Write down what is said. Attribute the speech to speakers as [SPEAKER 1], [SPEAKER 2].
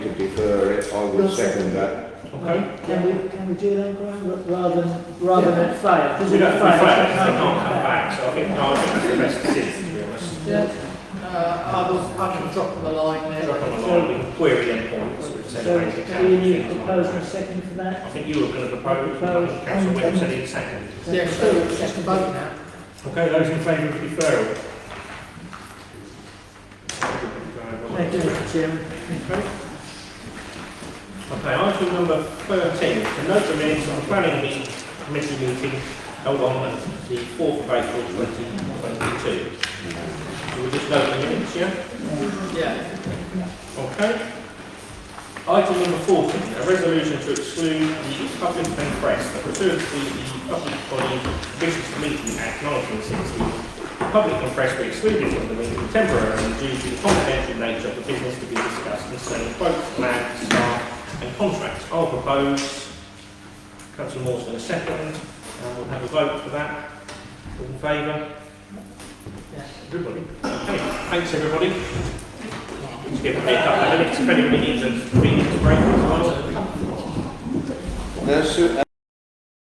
[SPEAKER 1] I will second that.
[SPEAKER 2] Okay.
[SPEAKER 3] Can we, can we do that, Brian, ra- rather than, rather than fire?
[SPEAKER 2] We
[SPEAKER 3] Because
[SPEAKER 2] don't, we
[SPEAKER 3] if
[SPEAKER 2] failed,
[SPEAKER 3] it
[SPEAKER 2] so I
[SPEAKER 3] fails, it
[SPEAKER 2] can't
[SPEAKER 3] come
[SPEAKER 2] come back, so I think, no, I think that's the best decision, to be honest.
[SPEAKER 3] Yeah.
[SPEAKER 4] Uh, I was, I can drop them a line there.
[SPEAKER 2] Drop on the line, we can query them points, we've said basically.
[SPEAKER 3] So, do you need a proposal and a second for that?
[SPEAKER 2] I think you were going to propose,
[SPEAKER 3] Propose.
[SPEAKER 2] councillor Webb said it second.
[SPEAKER 4] Yeah, sure, just a vote now.
[SPEAKER 2] Okay, those in favour of deferral?
[SPEAKER 3] Thank you, Mr Chairman.
[SPEAKER 2] Okay, item number thirteen, to note the minutes of the planning meeting, committee meeting held on the fourth of April twenty twenty-two. So we'll just note the minutes, yeah?
[SPEAKER 4] Yeah,
[SPEAKER 2] Okay. Item number fourteen, a resolution to exclude the public and press that pursuant to the Public Body Business Meeting Act nineteen sixty. The public and press were excluded from the meeting temporarily due to the confidential nature of the business to be discussed concerning quotes, plans, staff and contracts. I'll propose, councillor Moore's going to second, and we'll have a vote for that. All in favour?
[SPEAKER 4] Yes.
[SPEAKER 2] Everybody? Okay, thanks everybody. Just give me a couple of minutes, if anybody needs a convenience break as well.
[SPEAKER 1] Now, Sue,